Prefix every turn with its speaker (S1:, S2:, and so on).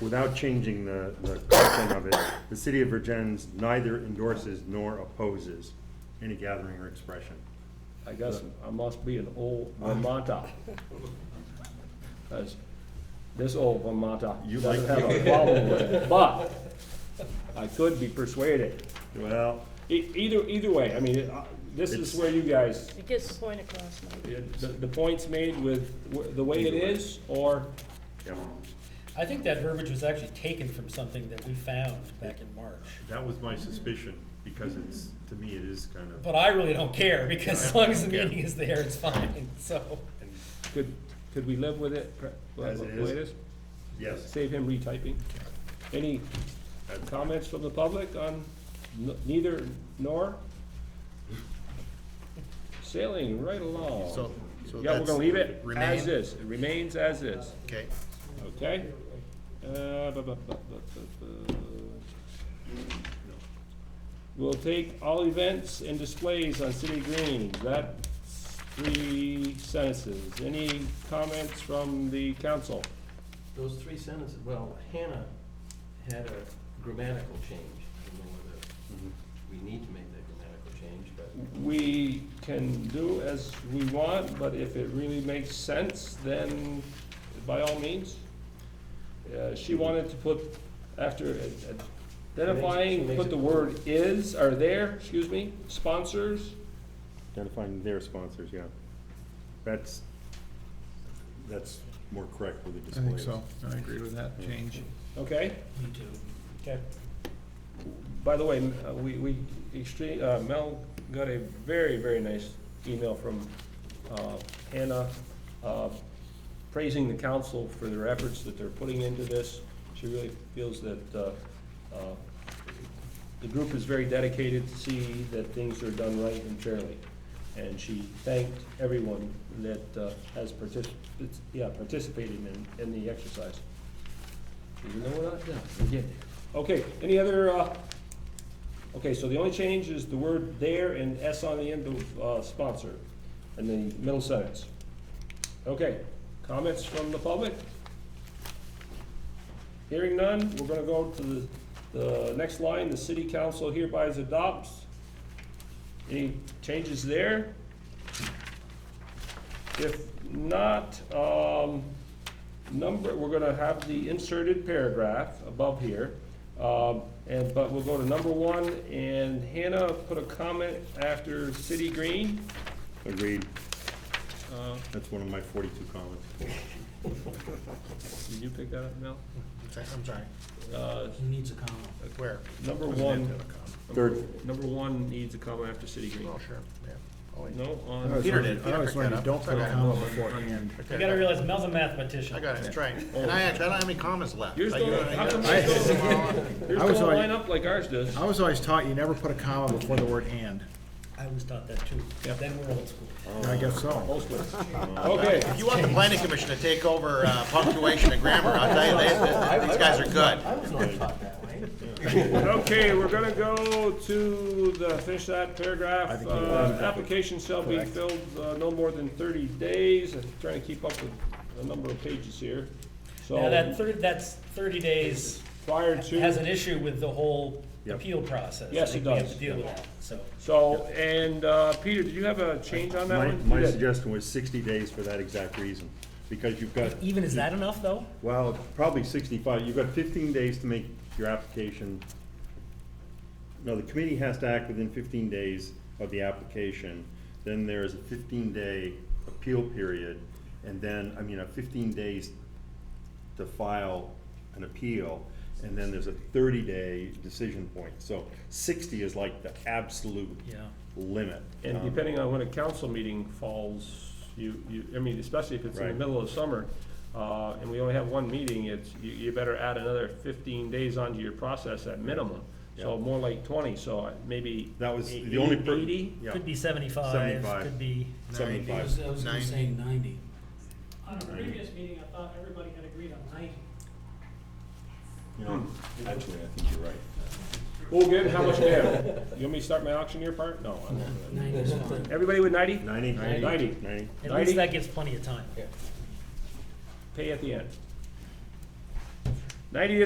S1: without changing the, the content of it, the city of Virgins neither endorses nor opposes any gathering or expression.
S2: I guess I must be an old Vermonter. 'Cause this old Vermonter
S1: You
S2: doesn't
S1: like-
S2: have a problem with it, but I could be persuaded.
S1: Well,
S2: E- Either, either way, I mean, uh, this
S1: It's-
S2: is where you guys,
S3: It gets the point across, Mike.
S2: the, the point's made with wh- the way it
S1: Either way.
S2: is, or
S1: yeah,
S4: I think that verbiage was actually taken from something that we found back in March.
S1: that was my suspicion, because it's, to me, it is kind of,
S4: But I really don't care, because as long as the
S1: Yeah.
S4: meeting is there, it's fine, so.
S2: could, could we live with it? pre-
S1: As it
S2: the way
S1: is. yes.
S2: Save him retyping. Any comments from the public on n- neither nor? Sailing right along.
S5: So,
S2: Yeah,
S5: so
S2: we're
S5: that's
S2: gonna leave it
S5: remain?
S2: as is, it remains as is,
S5: Okay,
S2: okay? Uh, bu- bu- bu- bu- bu- bu. We'll take all events and displays on city greens, that's three sentences. Any comments from the council?
S6: Those three sentences, well, Hannah had a grammatical change. I don't know whether
S5: Mm-hmm.
S6: we need to make that grammatical change, but
S2: We can do as we want, but if it really makes sense, then by all means. Uh, She wanted to put, after uh,
S6: She
S2: identifying,
S6: makes
S2: put
S6: it
S2: the word is, are there, excuse me, sponsors?
S1: Identifying their sponsors, yeah. That's, that's more correct with the
S5: I
S1: displays.
S5: think so, I agree with that change.
S2: Okay?
S4: Me too. Okay.
S2: By the way, m- uh, we, we, extreme, uh, Mel got a very, very nice email from, uh, Hannah, uh, praising the council for their efforts that they're putting into this. She really feels that, uh, uh, the group is very dedicated to see that things are done right and fairly. And she thanked everyone that, uh, has partic- yeah, participated in, in the exercise.
S6: even though we're not done, we get there.
S2: Okay, any other, uh, okay, so the only change is the word there and S on the end of, uh, sponsor, in the middle sentence. Okay, comments from the public? Hearing none, we're gonna go to the, the next line, the city council hereby adopts. Any changes there? If not, um, number, we're gonna have the inserted paragraph above here. Um, and, but we'll go to number one, and Hannah put a comment after City Green.
S1: Agreed,
S2: Uh,
S1: that's one of my forty-two comments.
S2: did you pick that up, Mel?
S5: I'm sorry,
S2: Uh,
S4: He needs a comma.
S5: where?
S2: number
S5: Doesn't have to
S2: one,
S5: have a comma.
S1: Third,
S2: number one needs a comma after City Green.
S5: Oh, sure, yeah. Oh, wait.
S2: No,
S7: I
S2: on,
S7: always
S5: Peter
S7: learned-
S5: did.
S7: I
S5: Peter
S7: always
S5: picked
S7: learned
S5: that
S7: you
S5: up.
S7: don't
S5: It's
S7: put a
S5: okay.
S7: comma beforehand.
S5: Okay,
S4: You gotta realize Mel's a mathematician.
S5: I got it, that's right, and I actually, I don't have any comments left.
S2: Oh. Yours
S5: I- you-
S2: don't-
S5: I-
S2: how come
S5: I-
S2: yours yours
S7: I was
S2: don't
S7: already-
S2: line up like ours does.
S7: I was always taught you never put a comma before the word and.
S4: I was taught that too, then we're old school.
S7: I guess so.
S2: Both ways. Okay,
S5: If you want the planning commission to take over uh, punctuation and grammar, I'll tell you, they- they- they- these guys are good.
S6: I was not taught that way.
S2: Okay, we're gonna go to the, finish that paragraph.
S7: I think you-
S2: Uh, Application shall be filled uh, no more than thirty days. I'm trying to keep up with the number of pages here.
S4: Now, that
S2: So
S4: thirty, that's thirty days
S2: prior
S4: has
S2: to,
S4: an issue with the whole
S1: Yep.
S4: appeal process.
S2: Yes,
S4: I think
S2: it
S4: we
S2: does.
S4: have to deal with it, so.
S2: so, and uh, Peter, did you have a change on that
S1: my,
S2: one?
S1: my
S2: You did.
S1: suggestion was sixty days for that exact reason, because you've got
S4: Even is that enough, though?
S1: Well, probably sixty-five, you've got fifteen days to make your application. No, the committee has to act within fifteen days of the application, then there is a fifteen-day appeal period, and then, I mean, a fifteen days to file an appeal, and then there's a thirty-day decision point, so sixty is like the absolute
S4: Yeah.
S1: limit.
S2: And
S1: Um,
S2: depending on when a council meeting falls, you, you, I mean, especially if it's in the
S1: Right.
S2: middle of summer, uh, and we only have one meeting, it's, you, you better add another fifteen days onto your process at minimum. So more like twenty, so I- maybe.
S1: That was
S2: eight-
S1: the only. per-
S2: Eighty?
S1: Yeah,
S4: Could be seventy-five,
S1: 75.
S4: could be.
S1: seventy-five.
S8: I was gonna
S5: Ninety.
S8: say ninety.
S9: On a previous meeting, I thought everybody had agreed on ninety.
S1: You know, Actually, I think you're right.
S2: Oh, good, how much do you have? You want me to start my auctioneer part? No. I won't.
S8: Ninety is fine.
S2: Everybody with ninety?
S1: Ninety?
S2: Ninety.
S1: Ninety.
S4: At
S2: 90?
S4: least that gives plenty of time.
S2: Pay at the end. Ninety